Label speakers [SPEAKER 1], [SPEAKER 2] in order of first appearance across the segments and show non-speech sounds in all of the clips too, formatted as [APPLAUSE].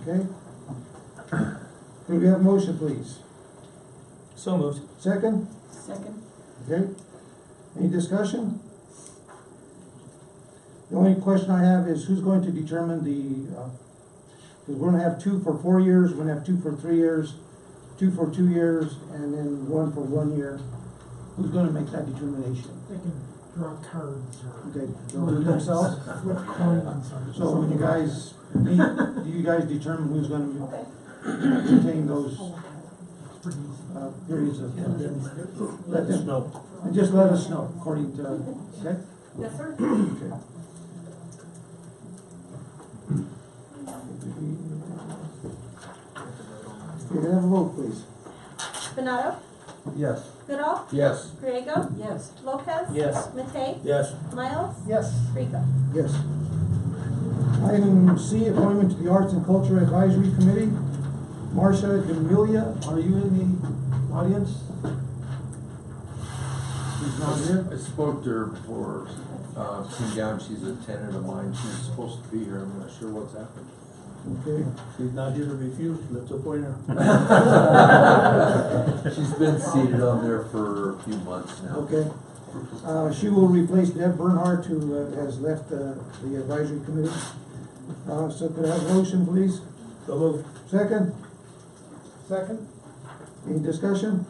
[SPEAKER 1] okay? Could we have a motion, please?
[SPEAKER 2] So moved.
[SPEAKER 1] Second,
[SPEAKER 3] Second?
[SPEAKER 1] okay? Any discussion? The only question I have is who's going to determine the, uh, because we're gonna have two for four years, we're gonna have two for three years, two for two years, and then one for one year. Who's gonna make that determination?
[SPEAKER 4] They can draw cards or
[SPEAKER 1] Okay, they'll do it themselves? [LAUGHS]
[SPEAKER 4] flip coins or
[SPEAKER 1] So when you
[SPEAKER 4] something.
[SPEAKER 1] guys, meet, do you guys determine who's gonna
[SPEAKER 3] Okay.
[SPEAKER 1] retain those
[SPEAKER 4] It's pretty easy.
[SPEAKER 1] uh, periods of,
[SPEAKER 4] And then
[SPEAKER 1] let them know, and just let us know according to, okay?
[SPEAKER 3] Yes, sir.
[SPEAKER 1] Okay. You can have a vote, please.
[SPEAKER 5] Benado,
[SPEAKER 6] Yes.
[SPEAKER 5] Goodall,
[SPEAKER 6] Yes.
[SPEAKER 5] Griego,
[SPEAKER 3] Yes.
[SPEAKER 5] Lopez.
[SPEAKER 2] Yes.
[SPEAKER 5] Matei,
[SPEAKER 6] Yes.
[SPEAKER 5] Miles,
[SPEAKER 4] Yes.
[SPEAKER 5] Rico.
[SPEAKER 1] Yes. Item C, appointment to the Arts and Culture Advisory Committee. Marcia Demilia, are you in the audience? She's not here.
[SPEAKER 6] I spoke to her before, uh, came down, she's a tenant of mine, she's supposed to be here, I'm not sure what's [LAUGHS] happened.
[SPEAKER 1] Okay.
[SPEAKER 7] She's not here to refuse, let's appoint her.
[SPEAKER 6] She's been seated on there for a few months now.
[SPEAKER 1] Okay. Uh, she will replace Deb Bernhardt, who uh, has left, uh, the advisory committee. Uh, so could I have a motion, please?
[SPEAKER 7] So moved.
[SPEAKER 1] Second,
[SPEAKER 4] Second?
[SPEAKER 1] any discussion?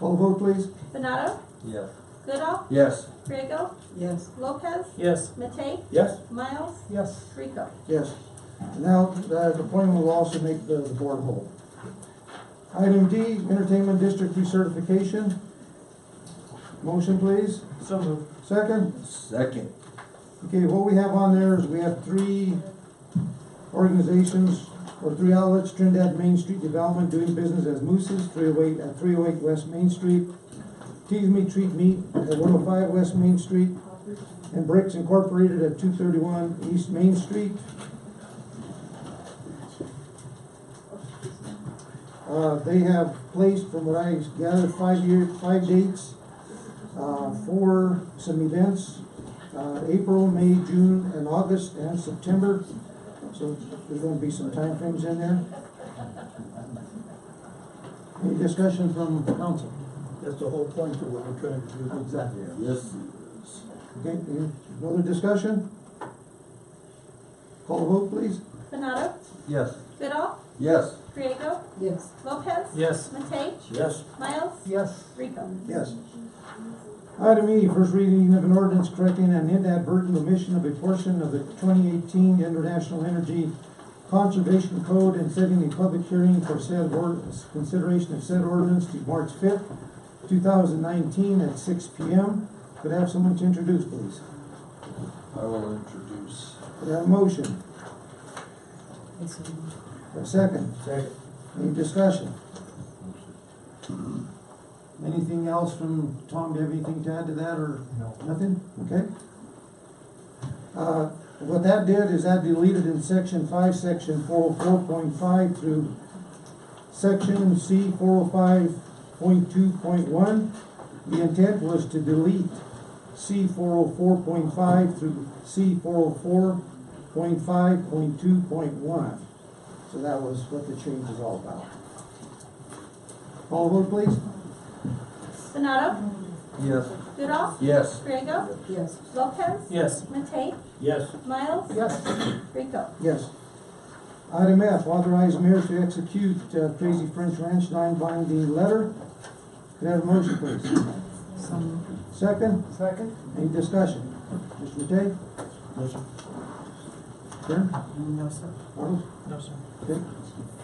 [SPEAKER 1] Call the vote, please.
[SPEAKER 5] Benado,
[SPEAKER 6] Yes.
[SPEAKER 5] Goodall,
[SPEAKER 6] Yes.
[SPEAKER 5] Griego,
[SPEAKER 3] Yes.
[SPEAKER 5] Lopez,
[SPEAKER 2] Yes.
[SPEAKER 5] Matei,
[SPEAKER 7] Yes?
[SPEAKER 5] Miles,
[SPEAKER 4] Yes.
[SPEAKER 5] Rico.
[SPEAKER 1] Yes. Now, uh, the appointment will also make the, the board whole. Item D, entertainment district recertification. Motion, please.
[SPEAKER 2] So moved.
[SPEAKER 1] Second.
[SPEAKER 6] Second.
[SPEAKER 1] Okay, what we have on there is we have three organizations or three outlets, Trinidad Main Street Development doing business as Moose's, three oh eight, at three oh eight West Main Street, Tease Me Treat Me at one oh five West Main Street, and Bricks Incorporated at two thirty-one East Main Street. Uh, they have placed, from what I gathered, five year, five dates, uh, for some events uh, April, May, June, and August, and September. So there's gonna be some time frames in there. Any discussion from council?
[SPEAKER 7] That's the whole point of what we're trying to do.
[SPEAKER 1] Exactly.
[SPEAKER 6] Yes.
[SPEAKER 1] Okay, any other discussion? Call the vote, please.
[SPEAKER 5] Benado,
[SPEAKER 6] Yes.
[SPEAKER 5] Goodall,
[SPEAKER 6] Yes.
[SPEAKER 5] Griego,
[SPEAKER 3] Yes.
[SPEAKER 5] Lopez.
[SPEAKER 2] Yes.
[SPEAKER 5] Matei,
[SPEAKER 7] Yes.
[SPEAKER 5] Miles,
[SPEAKER 4] Yes.
[SPEAKER 5] Rico.
[SPEAKER 1] Yes. Item E, first reading of an ordinance correcting an inadvertent omission of a portion of the twenty eighteen International Energy Conservation Code and setting a public hearing for said ordinance, consideration of said ordinance to March fifth, two thousand nineteen at six P M. Could I have someone to introduce, please?
[SPEAKER 6] I will introduce.
[SPEAKER 1] Could I have a motion? A second?
[SPEAKER 7] Second.
[SPEAKER 1] Any discussion? Anything else from Tom, do you have anything to add to that, or? Nothing? Okay. Uh, what that did is that deleted in section five, section four oh four point five through section C four oh five point two point one. The intent was to delete C four oh four point five through C four oh four point five point two point one. So that was what the change is all about. Call vote, please.
[SPEAKER 5] Benado,
[SPEAKER 6] Yes.
[SPEAKER 5] Goodall,
[SPEAKER 6] Yes.
[SPEAKER 5] Griego,
[SPEAKER 3] Yes.
[SPEAKER 5] Lopez.
[SPEAKER 2] Yes.
[SPEAKER 5] Matei,
[SPEAKER 7] Yes.
[SPEAKER 5] Miles,
[SPEAKER 4] Yes.
[SPEAKER 5] Rico.
[SPEAKER 1] Yes. Item F, authorize mayor to execute uh, Crazy French Ranch non-binding letter. Could I have a motion, please? Second,
[SPEAKER 4] Second?
[SPEAKER 1] any discussion? Mr. Matei?
[SPEAKER 7] Yes, sir.
[SPEAKER 1] Karen?
[SPEAKER 3] No, sir.
[SPEAKER 1] Arnold?
[SPEAKER 2] No, sir.
[SPEAKER 1] Okay.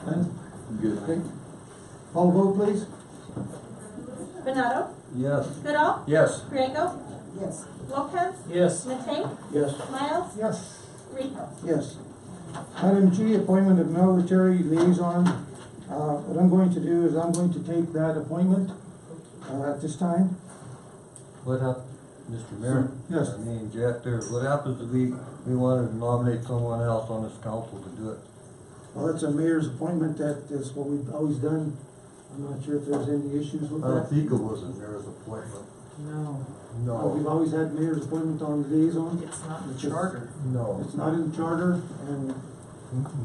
[SPEAKER 1] Glenn? Okay.
[SPEAKER 6] Good.
[SPEAKER 1] Call vote, please.
[SPEAKER 5] Benado,
[SPEAKER 6] Yes.
[SPEAKER 5] Goodall,
[SPEAKER 6] Yes.
[SPEAKER 5] Griego,
[SPEAKER 3] Yes.
[SPEAKER 5] Lopez.
[SPEAKER 2] Yes.
[SPEAKER 5] Matei,
[SPEAKER 7] Yes.
[SPEAKER 5] Miles,
[SPEAKER 4] Yes.
[SPEAKER 5] Rico.
[SPEAKER 1] Yes. Item G, appointment of military liaison. Uh, What I'm going to do is I'm going to take that appointment uh, at this time.
[SPEAKER 6] What happened, Mr. Mayor?
[SPEAKER 1] Yes.
[SPEAKER 6] I mean, Jeff, there, what happens if we, we wanted to nominate someone else on this council to do it?
[SPEAKER 1] Well, that's a mayor's appointment, that is what we've always done. I'm not sure if there's any issues with
[SPEAKER 6] I
[SPEAKER 1] that.
[SPEAKER 6] don't think it was in there as appointment.
[SPEAKER 2] No,
[SPEAKER 1] Uh, We've
[SPEAKER 6] No,
[SPEAKER 1] always had mayor's appointment on liaison.
[SPEAKER 2] it's not in
[SPEAKER 1] the charter.
[SPEAKER 6] no.
[SPEAKER 1] It's not in the charter, and